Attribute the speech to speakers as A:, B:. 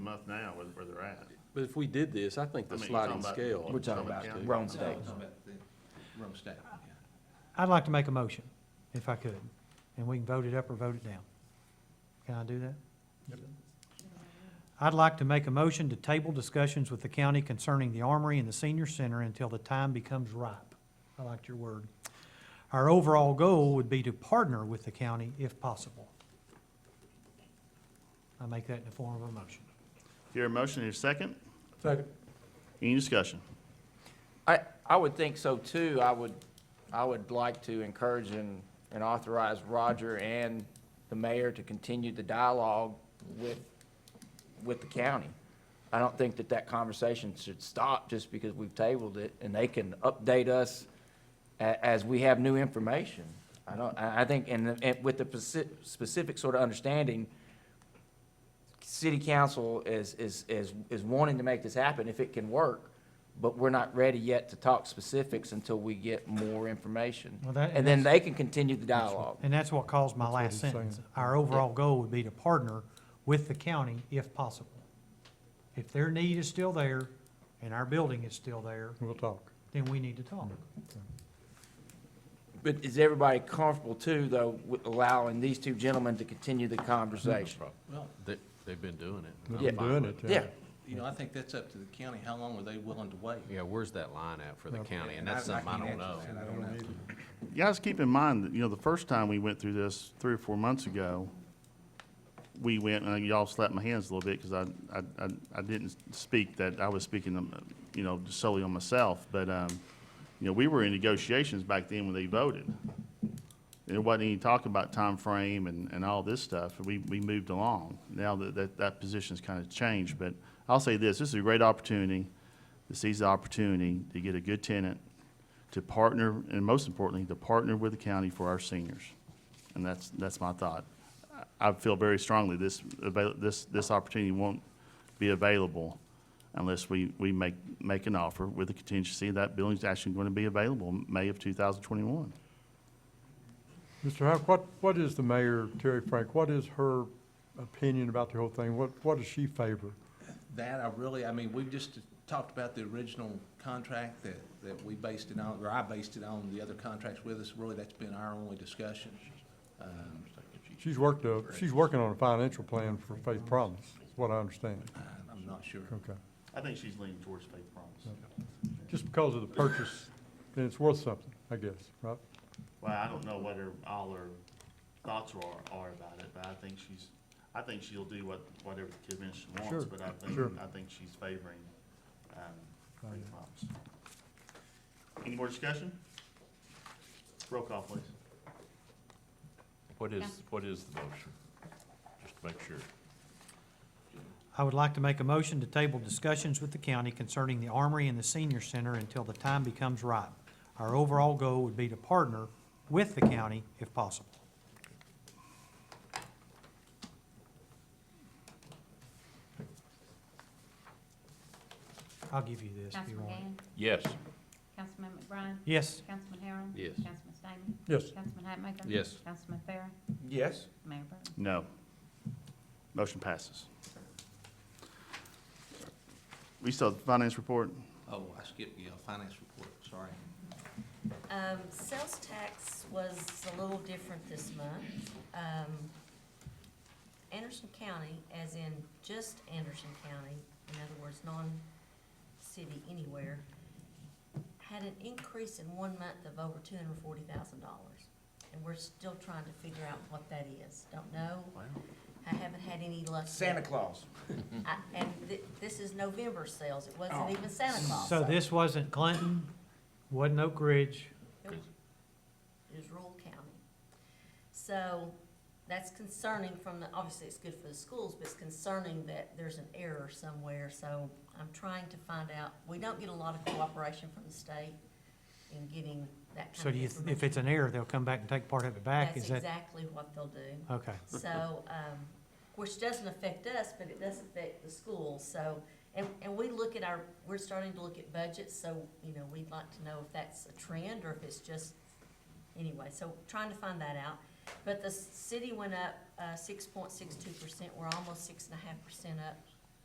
A: month now where, where they're at.
B: But if we did this, I think
A: I
B: the
A: mean, you're
B: sliding
A: talking about-
B: scale.
A: We're
C: We're
A: talking
C: talking
A: about
C: about
A: Somebody-
C: Rome State.
D: Rome State, yeah.
E: I'd like to make a motion, if I could, and we can vote it up or vote it down. Can I do that? I'd like to make a motion to table discussions with the county concerning the Armory and the Senior Center until the time becomes ripe. I liked your word. Our overall goal would be to partner with the county if possible. I make that in the form of a motion.
A: Here, a motion, here, second?
B: Second.
A: Any discussion?
C: I, I would think so too. I would, I would like to encourage and, and authorize Roger and the mayor to continue the dialogue with, with the county. I don't think that that conversation should stop just because we've tabled it and they can update us a, as we have new information. I don't, I, I think, and, and with the speci- specific sort of understanding, city council is, is, is, is wanting to make this happen if it can work, but we're not ready yet to talk specifics until we get more information.
E: Well, that-
C: And then they can continue the dialogue.
E: And that's what caused my last
F: he's saying.
E: sentence. Our overall goal would be to partner with the county if possible. If their need is still there and our building is still there,
F: We'll talk.
E: then we need to talk.
C: But is everybody comfortable too, though, with allowing these two gentlemen to continue the conversation?
D: Well,
B: They, they've been doing it.
F: We've
B: I'm
C: Yeah.
F: been
B: fine
F: doing it.
B: with
C: Yeah,
D: you know, I think that's up to the county, how long were they willing to wait?
B: Yeah, where's that line at for the county? And that's
D: I- I
B: something I don't
D: can't
B: know.
D: answer that. I don't know.
A: You guys keep in mind that, you know, the first time we went through this three or four months ago, we went, and y'all slapped my hands a little bit because I, I, I- I didn't speak that, I was speaking, um, you know, solely on myself. But, um, you know, we were in negotiations back then when they voted. There wasn't any talk about time frame and, and all this stuff. We, we moved along. Now that, that, that position's kind of changed, but I'll say this, this is a great opportunity. to seize the opportunity to get a good tenant, to partner, and most importantly, to partner with the county for our seniors. And that's, that's my thought. I I feel very strongly this, avail- this, this opportunity won't be available unless we, we make, make an offer with a contingency that building's actually going to be available May of 2021.
F: Mr. Howe, what, what is the mayor, Terry Frank, what is her opinion about the whole thing? What, what does she favor?
D: That, I really, I mean, we've just talked about the original contract that, that we based it on, or I based it on the other contracts with us, really, that's been our only discussion. Um,
F: She's worked, a- she's working on a financial plan for Faith Promise, is what I understand.
D: I'm not sure.
F: Okay.
A: I think she's leaning towards faith promise.
F: Just because of the purchase, then it's worth something, I guess, right?
A: Well, I don't know what her, all her thoughts are, are about it, but I think she's, I think she'll do what, whatever the commission wants,
F: Sure,
A: but I think,
F: sure.
A: I think she's favoring, um, Freedom Homes. Any more discussion? Roll call, please.
G: What is, what is the motion? Just to make sure.
E: I would like to make a motion to table discussions with the county concerning the Armory and the Senior Center until the time becomes ripe. Our overall goal would be to partner with the county if possible. I'll give you this if you
G: Councilman
E: want. it.
G: Gann?
B: Yes.
G: Councilman McBride?
E: Yes,
G: Councilman Harron?
B: Yes.
G: Councilman Stamey?
F: Yes.
G: Councilman Hatmaker?
B: Yes.
G: Councilman Farron?
C: Yes.
G: Mayor Burton?
A: No. Motion passes. We still have the finance report?
D: Oh, I skipped, yeah, finance report, sorry.
H: Um, sales tax was a little different this month. Um, Anderson County, as in just Anderson County, in other words, non-city anywhere, had an increase in one month of over two hundred and forty thousand dollars. And we're still trying to figure out what that is. Don't know. I haven't had any luck. yet.
C: Santa Claus.
H: I- And thi- this is November sales. It wasn't even Santa Claus.
E: Oh. so this wasn't Clinton, wasn't Oak Ridge,
H: Nope. It was rural county. So that's concerning from the, obviously it's good for the schools, but it's concerning that there's an error somewhere. So I'm trying to find out, we don't get a lot of cooperation from the state in getting that
E: so do
H: kind of
E: you,
H: information.
E: if it's an error, they'll come back and take part of it back, is
H: That's
E: that?
H: exactly what they'll do.
E: Okay.
H: So, um, which doesn't affect us, but it does affect the schools, so, and, and we look at our, we're starting to look at budgets, so, you know, we'd like to know if that's a trend or if it's just, anyway, so trying to find that out. But the city went up, uh, six point six two percent, we're almost six and a half percent up